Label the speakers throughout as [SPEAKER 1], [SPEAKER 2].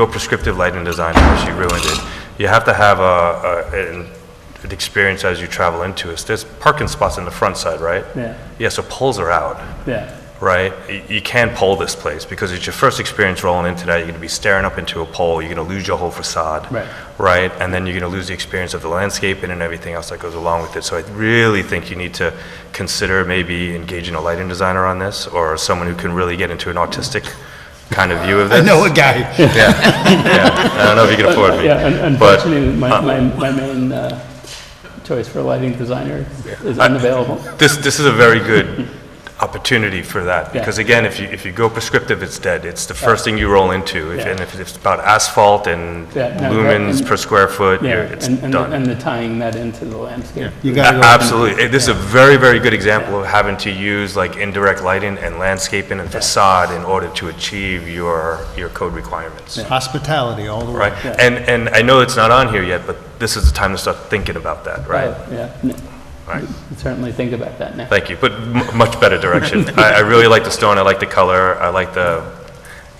[SPEAKER 1] no prescriptive lighting design, or she ruined it. You have to have a, a, an- an experience as you travel into it. There's parking spots in the front side, right?
[SPEAKER 2] Yeah.
[SPEAKER 1] Yeah, so poles are out,
[SPEAKER 2] Yeah,
[SPEAKER 1] right? Y- You can pole this place, because it's your first experience rolling into that, you're gonna be staring up into a pole, you're gonna lose your whole facade.
[SPEAKER 2] Right.
[SPEAKER 1] Right, and then you're gonna lose the experience of the landscaping and everything else that goes along with it. So I really think you need to consider maybe engaging a lighting designer on this, or someone who can really get into an autistic kind of view of
[SPEAKER 3] I
[SPEAKER 1] this.
[SPEAKER 3] know a guy.
[SPEAKER 1] Yeah, yeah. I don't know if you can afford me.
[SPEAKER 2] yeah, un-
[SPEAKER 1] but-
[SPEAKER 2] unfortunately, my, my, my main uh, choice for lighting designer is unavailable.
[SPEAKER 1] This, this is a very good opportunity for that, because
[SPEAKER 2] Yeah.
[SPEAKER 1] again, if you, if you go prescriptive, it's dead. It's the first thing you roll into, If-
[SPEAKER 2] Yeah.
[SPEAKER 1] and if it's about asphalt and
[SPEAKER 2] Yeah, no, that-
[SPEAKER 1] lumens
[SPEAKER 2] and-
[SPEAKER 1] per square foot,
[SPEAKER 2] Yeah,
[SPEAKER 1] you're- it's
[SPEAKER 2] and, and, the-
[SPEAKER 1] done.
[SPEAKER 2] and the tying that into the landscape.
[SPEAKER 3] You
[SPEAKER 1] A-
[SPEAKER 3] gotta go.
[SPEAKER 1] Absolutely. Eh, This is a very, very good example of having to use like indirect lighting and landscaping and facade in order to achieve your, your code requirements.
[SPEAKER 3] Hospitality all the way.
[SPEAKER 1] Right? And, and I know it's not on here yet, but this is the time to start thinking about that, right?
[SPEAKER 2] Oh, Yeah, n-
[SPEAKER 1] Right.
[SPEAKER 2] certainly think about that now.
[SPEAKER 1] Thank you, but m- much better direction. I, I really like the stone, I like the color, I like the,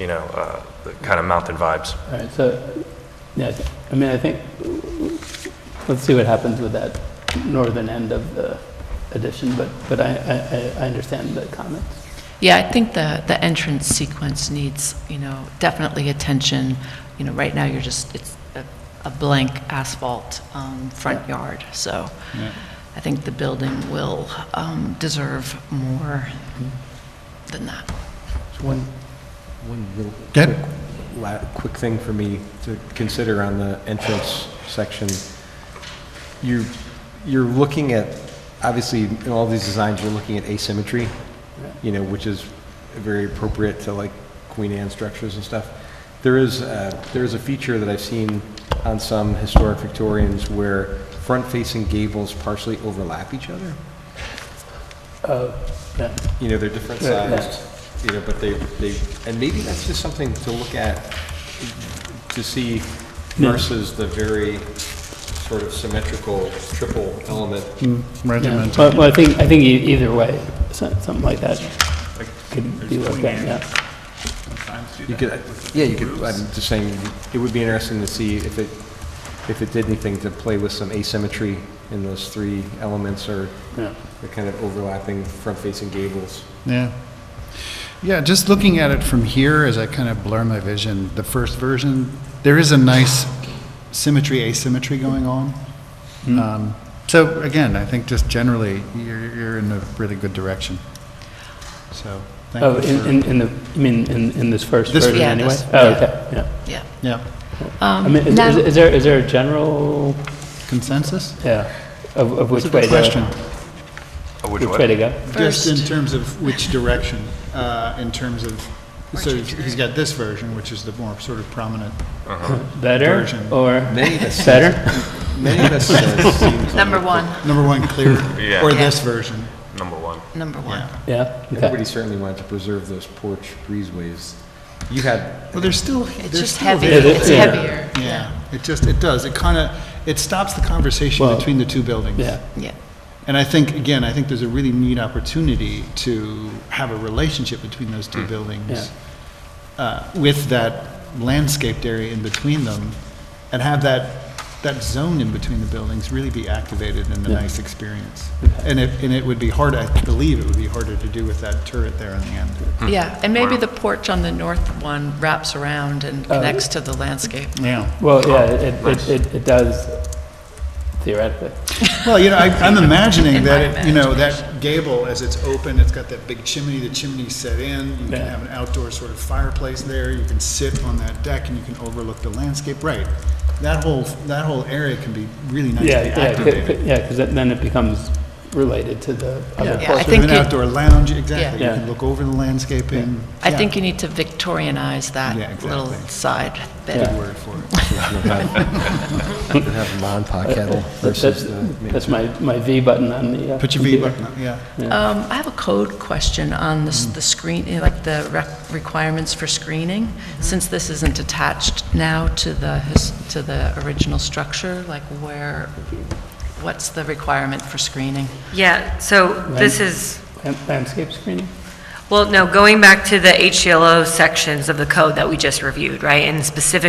[SPEAKER 1] you know, uh, the kind of mountain vibes.
[SPEAKER 2] All right, so, yeah, I thi- I mean, I think, let's see what happens with that northern end of the addition, but, but I, I- I, I understand the comments.
[SPEAKER 4] Yeah, I think the, the entrance sequence needs, you know, definitely attention. You know, right now, you're just, it's a- a blank asphalt um, front yard, so I think the building will um, deserve more than that.
[SPEAKER 5] One, one real
[SPEAKER 3] Go
[SPEAKER 5] quick,
[SPEAKER 3] ahead.
[SPEAKER 5] la- quick thing for me to consider on the entrance section. You, you're looking at, obviously, in all these designs, you're looking at asymmetry, you know, which is very appropriate to like Queen Anne structures and stuff. There is, uh, there is a feature that I've seen on some historic Victorians where front-facing gables partially overlap each other.
[SPEAKER 2] Oh, yeah,
[SPEAKER 5] you know, they're different
[SPEAKER 2] Right, right.
[SPEAKER 5] sized, you know, but they, they, and maybe that's just something to look at, to see versus the very sort of symmetrical triple element.
[SPEAKER 2] Hmm. yeah.
[SPEAKER 3] Regimental.
[SPEAKER 2] Well, well, I think, I think e- either way, so- something like that could be looked at, yeah.
[SPEAKER 5] You could, yeah, you could, I'm just saying, it would be interesting to see if it, if it did anything to play with some asymmetry in those three elements or
[SPEAKER 2] Yeah.
[SPEAKER 5] the kind of overlapping front-facing gables.
[SPEAKER 3] Yeah. Yeah, just looking at it from here as I kind of blur my vision, the first version, there is a nice symmetry, asymmetry going on. Um, So again, I think just generally, you're, you're in a really good direction. So,
[SPEAKER 2] Oh,
[SPEAKER 3] thank you
[SPEAKER 2] in,
[SPEAKER 3] for-
[SPEAKER 2] in- in the, you mean, in, in this first
[SPEAKER 3] This-
[SPEAKER 2] version
[SPEAKER 4] Yeah,
[SPEAKER 2] anyway?
[SPEAKER 4] this-
[SPEAKER 2] Oh,
[SPEAKER 4] yeah.
[SPEAKER 2] okay, yeah.
[SPEAKER 4] Yeah.
[SPEAKER 3] Yeah,
[SPEAKER 2] I mean, is- is, is there, is there a general,
[SPEAKER 3] consensus?
[SPEAKER 2] yeah, of, of which
[SPEAKER 3] That's a
[SPEAKER 2] way
[SPEAKER 3] good
[SPEAKER 2] to?
[SPEAKER 3] question.
[SPEAKER 1] Which
[SPEAKER 2] Which
[SPEAKER 1] way?
[SPEAKER 2] way to go?
[SPEAKER 3] Just in
[SPEAKER 4] First.
[SPEAKER 3] terms of which direction, uh, in terms of, so he's got this version, which is the more sort of prominent.
[SPEAKER 2] Better
[SPEAKER 3] Version.
[SPEAKER 2] or
[SPEAKER 5] Many of us,
[SPEAKER 2] better?
[SPEAKER 5] many of us uh, seem.
[SPEAKER 4] Number one,
[SPEAKER 3] Number one, clear,
[SPEAKER 1] Yeah.
[SPEAKER 3] or this version.
[SPEAKER 1] Number one.
[SPEAKER 4] number one.
[SPEAKER 3] Yeah.
[SPEAKER 2] Yeah,
[SPEAKER 5] Everybody
[SPEAKER 2] okay.
[SPEAKER 5] certainly wanted to preserve those porch breezeways. You had,
[SPEAKER 3] Well, there's still,
[SPEAKER 4] It's
[SPEAKER 3] there's
[SPEAKER 4] just
[SPEAKER 3] still
[SPEAKER 4] heavy,
[SPEAKER 3] there.
[SPEAKER 4] it's
[SPEAKER 2] Yeah.
[SPEAKER 4] heavier.
[SPEAKER 3] Yeah, it just, it does, it kind of, it stops the conversation
[SPEAKER 2] Well-
[SPEAKER 3] between the two buildings.
[SPEAKER 2] Yeah,
[SPEAKER 4] Yeah.
[SPEAKER 3] And I think, again, I think there's a really neat opportunity to have a relationship between those two buildings. uh, With that landscaped area in between them, and have that, that zone in between the buildings really be activated in a nice experience. And it, and it would be hard, I believe it would be harder to do with that turret there in the end.
[SPEAKER 4] Yeah, and maybe the porch on the north one wraps around and
[SPEAKER 3] Oh.
[SPEAKER 4] connects to the landscape.
[SPEAKER 3] Yeah.
[SPEAKER 2] well, yeah, it, it, it, it does theoretically.
[SPEAKER 3] Well, you know, I, I'm imagining
[SPEAKER 4] In
[SPEAKER 3] that,
[SPEAKER 4] my
[SPEAKER 3] it- you know, that gable, as it's open, it's got that big chimney, the chimney's set in, you can
[SPEAKER 2] Yeah.
[SPEAKER 3] have an outdoor sort of fireplace there, you can sit on that deck and you can overlook the landscape, right? That whole, that whole area can be really nicely
[SPEAKER 2] Yeah, yeah,
[SPEAKER 3] activated.
[SPEAKER 2] c- c- yeah, because then it becomes related to the other
[SPEAKER 4] Yeah, I
[SPEAKER 2] portion.
[SPEAKER 3] Sort of an
[SPEAKER 4] think you-
[SPEAKER 3] outdoor lounge, exactly, you
[SPEAKER 2] Yeah.
[SPEAKER 3] can look over the landscaping.
[SPEAKER 4] I
[SPEAKER 3] Yeah.
[SPEAKER 4] think you need to Victorianize that
[SPEAKER 3] Yeah, exactly.
[SPEAKER 4] little side bit.
[SPEAKER 2] Yeah.
[SPEAKER 3] Good word for it.
[SPEAKER 5] you have, you have Mon Pa
[SPEAKER 2] Uh,
[SPEAKER 5] kettle
[SPEAKER 2] That's,
[SPEAKER 5] versus uh, the.
[SPEAKER 2] that's my, my V button on the. uh,
[SPEAKER 3] Put your V
[SPEAKER 2] computer.
[SPEAKER 3] button up, yeah.
[SPEAKER 4] Um, I have a code question on this- the screen, you know, like the rec- requirements for screening. Since this isn't attached now to the, his- to the original structure, like where, what's the requirement for screening?
[SPEAKER 6] Yeah, so this
[SPEAKER 2] Right.
[SPEAKER 6] is,
[SPEAKER 2] Lan- Landscape screening?
[SPEAKER 6] well, no, going back to the HGLO sections of the code that we just reviewed, right? And specifically